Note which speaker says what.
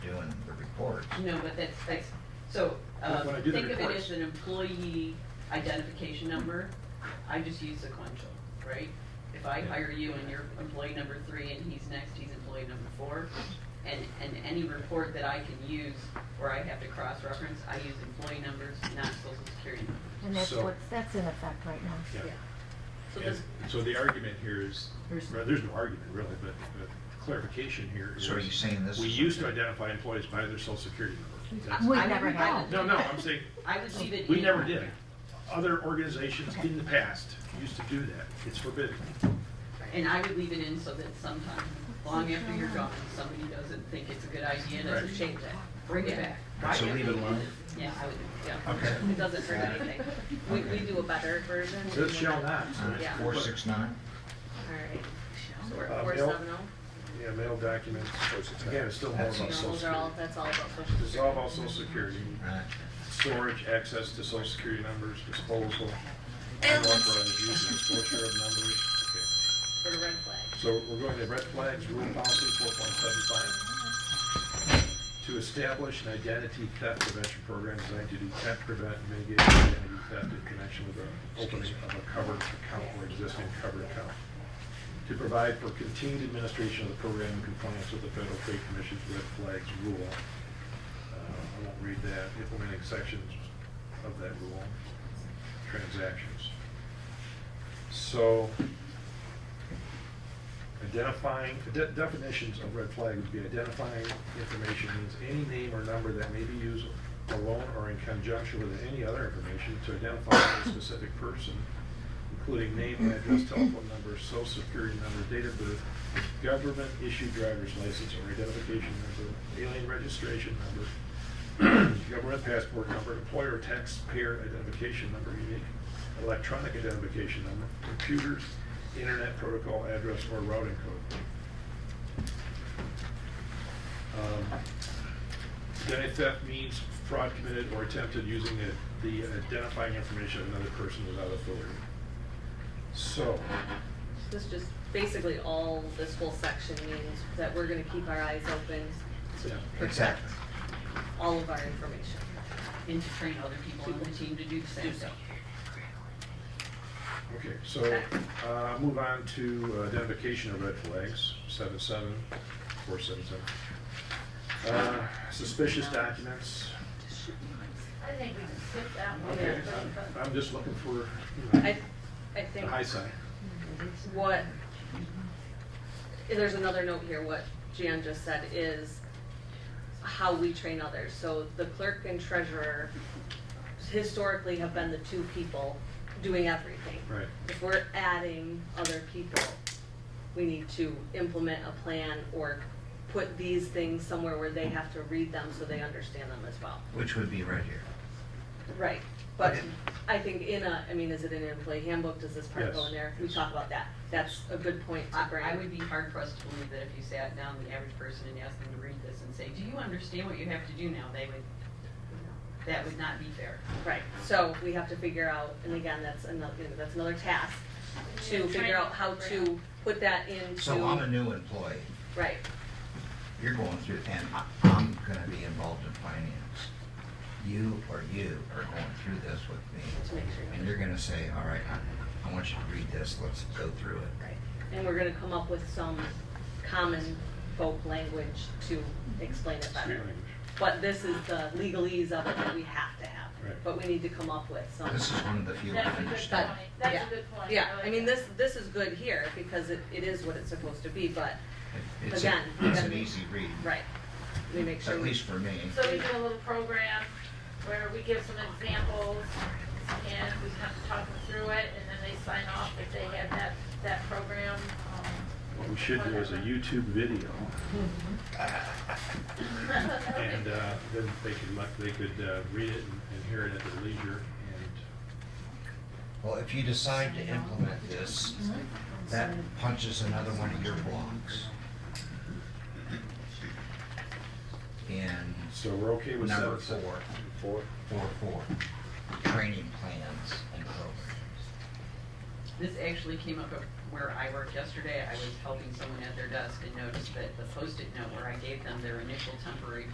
Speaker 1: reports.
Speaker 2: No, but that's, that's, so, uh,
Speaker 1: When I do the
Speaker 2: think of it
Speaker 1: reports.
Speaker 2: as an employee identification number, I just use sequential, right? If I hire you and you're employee number three and he's next, he's employee number four, and, and any report that I can use where I have to cross-reference, I use employee numbers, not social security numbers.
Speaker 3: And that's
Speaker 1: So-
Speaker 3: what's, that's in effect right now.
Speaker 1: Yeah.
Speaker 2: So
Speaker 1: And
Speaker 2: this,
Speaker 1: so the argument here is,
Speaker 3: There's-
Speaker 1: well, there's no argument really, but but clarification here is.
Speaker 4: So are you saying this
Speaker 1: We
Speaker 4: is
Speaker 1: used to
Speaker 4: okay?
Speaker 1: identify employees by their social security number. That's-
Speaker 3: We
Speaker 2: I
Speaker 3: never
Speaker 2: would- I
Speaker 3: have.
Speaker 2: would-
Speaker 1: No, no, I'm saying,
Speaker 2: I would leave it in.
Speaker 1: we never did. Other organizations in the past used to do that. It's forbidden.
Speaker 2: And I would leave it in so that sometime, long after you're gone, somebody doesn't think it's a good idea and doesn't
Speaker 1: Right.
Speaker 2: change that. Bring it back.
Speaker 4: Right, so
Speaker 2: Why
Speaker 4: leave it
Speaker 2: not?
Speaker 4: alone?
Speaker 2: Yeah, I would,
Speaker 4: Okay.
Speaker 2: yeah. It doesn't hurt anything.
Speaker 5: We, we do a better version.
Speaker 1: So it shall not. so it's-
Speaker 5: Yeah.
Speaker 4: Uh, Four, six, nine?
Speaker 5: Alright, so we're,
Speaker 1: Uh,
Speaker 5: we're
Speaker 1: mail-
Speaker 2: oh.
Speaker 5: seven
Speaker 1: Yeah, mail documents. Again, it's still more about
Speaker 4: That's-
Speaker 5: oh,
Speaker 1: social
Speaker 5: those are all,
Speaker 1: security.
Speaker 5: that's all about social
Speaker 1: Dissolve
Speaker 5: security.
Speaker 1: all social security,
Speaker 4: Right.
Speaker 1: storage, access to social security numbers, disposal, unauthorized use and disclosure of numbers. Okay.
Speaker 5: For the red flag.
Speaker 1: So we're going to red flags, rule policy four point seven five. To establish an identity theft prevention program designed to detect, prevent, and mitigate identity theft in connection with the opening of a covered account or existing covered account. To provide for continued administration of the program in compliance with the Federal Trade Commission's red flags rule. Uh, I won't read that, implementing sections of that rule, transactions. So, Identifying, de- definitions of red flag would be identifying information means any name or number that may be used alone or in conjunction with any other information to identify a specific person, including name, address, telephone number, social security number, date of birth, government-issued driver's license or identification number, alien registration number, government passport number, employer taxpayer identification number, unique electronic identification number, computers, internet protocol address, or routing code. Um, Identity theft means fraud committed or attempted using the- the identifying information of another person without authority. So,
Speaker 5: This just, basically all, this whole section means that we're gonna keep our eyes open
Speaker 1: yeah,
Speaker 5: to protect
Speaker 4: Exactly.
Speaker 5: all of our information.
Speaker 2: And to train other people on the team to do the same thing.
Speaker 1: okay, so uh, move on to identification of red flags, seven seven, four seven seven. Uh, Suspicious documents,
Speaker 6: I think we can skip that one.
Speaker 1: Okay, I'm- I'm just looking for, you know,
Speaker 5: I, I
Speaker 1: the
Speaker 5: think
Speaker 1: high side.
Speaker 5: what, there's another note here, what Jan just said is how we train others. So the clerk and treasurer historically have been the two people doing everything.
Speaker 1: Right.
Speaker 5: If we're adding other people, we need to implement a plan or put these things somewhere where they have to read them so they understand them as well.
Speaker 4: Which would be right here.
Speaker 5: Right, but
Speaker 4: Okay.
Speaker 5: I think in a, I mean, is it in an employee handbook, does this part go
Speaker 1: Yes.
Speaker 5: in there? We talk about that, that's a good point to bring.
Speaker 2: I, I would be hard pressed to believe that if you sat down the average person and asked them to read this and say, do you understand what you have to do now? They would, that would not be fair.
Speaker 5: Right, so we have to figure out, and again, that's another, that's another task, to figure out how to put that into.
Speaker 4: So I'm a new employee.
Speaker 5: Right,
Speaker 4: You're going through, and I- I'm gonna be involved in finance. You or you are going through this with
Speaker 5: to
Speaker 4: me.
Speaker 5: make sure.
Speaker 4: And you're gonna say, all right, I, I want you to read this, let's go through it.
Speaker 5: Right, and we're gonna come up with some common folk language to explain it
Speaker 1: Street
Speaker 5: better.
Speaker 1: language.
Speaker 5: But this is the legalese of it that we have to have,
Speaker 1: Right.
Speaker 5: but we need to come up with some.
Speaker 4: This is one of the few I
Speaker 6: That's a good
Speaker 4: understand.
Speaker 6: point. That's a good point.
Speaker 5: Yeah, I
Speaker 6: like
Speaker 5: mean,
Speaker 6: that.
Speaker 5: this, this is good here, because it, it is what it's supposed to be, but,
Speaker 4: It- It's, a-
Speaker 5: Again,
Speaker 4: it's an
Speaker 5: then-
Speaker 4: easy read,
Speaker 5: right, we make sure.
Speaker 4: at
Speaker 5: we-
Speaker 4: least for me.
Speaker 6: So we do a little program where we give some examples and we kind of talk them through it and then they sign off if they have that, that program. um,
Speaker 1: What we should do is a YouTube video, and uh, then they could, let- they could uh, read it and and hear it at their leisure, and
Speaker 4: Well, if you decide to implement this, that punches another one of your blocks. And
Speaker 1: so we're okay with seven.
Speaker 4: number four,
Speaker 1: Four.
Speaker 4: four, four, training plans and programs.
Speaker 2: This actually came up at where I worked yesterday. I was helping someone at their desk and noticed that the post-it note where I gave them their initial temporary